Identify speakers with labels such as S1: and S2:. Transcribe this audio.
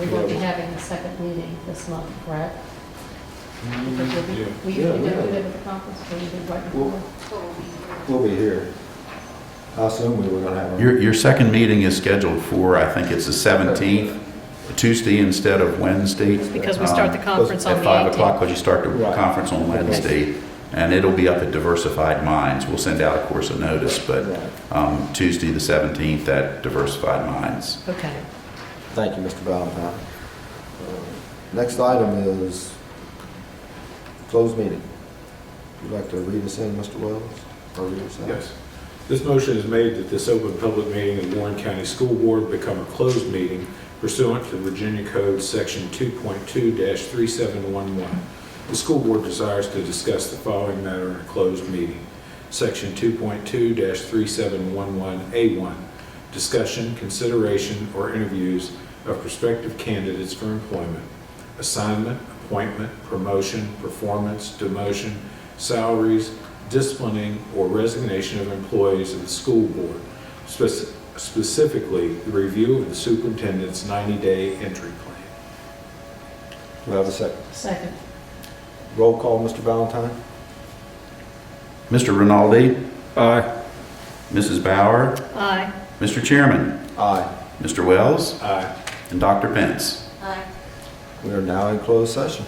S1: We won't be having a second meeting this month, correct? Because we'll be- We
S2: Mm, Mm-hmm. Yeah,
S1: usually don't
S2: yeah.
S1: do that at the conference, we usually do it right
S2: Well-
S1: before.
S2: We'll be here. I assume we were gonna have one.
S3: Your, your second meeting is scheduled for, I think it's the 17th, Tuesday instead of Wednesday.
S1: Because we start the
S2: Uh,
S3: Um,
S1: conference on the
S3: At 5 o'clock,
S1: 18th.
S3: because you start the
S2: Right.
S3: conference on Wednesday, and it'll be up at Diversified Minds. We'll send out, of course, a notice, but
S2: Right.
S3: um, Tuesday, the 17th, at Diversified Minds.
S1: Okay.
S2: Thank you, Mr. Valentine. Uh, Next item is closed meeting. Would you like to read us in, Mr. Wells? Or read us out?
S4: Yes. This motion is made that this open public meeting of Warren County School Board become a closed meeting pursuant to Virginia Code Section 2.2-3711. The school board desires to discuss the following matter in a closed meeting. Section 2.2-3711A1, discussion, consideration, or interviews of prospective candidates for employment, assignment, appointment, promotion, performance, demotion, salaries, disciplining, or resignation of employees of the school board, spec- specifically the review of the superintendent's 90-day entry plan.
S2: Do I have a second?
S1: Second,
S2: Roll call, Mr. Valentine?
S3: Mr. Rinaldi,
S4: Aye.
S3: Mrs. Bauer,
S1: aye.
S3: Mr. Chairman,
S2: Aye.
S3: Mr. Wells,
S4: Aye.
S3: and Dr. Pence.
S1: Aye.
S2: We are now in closed session.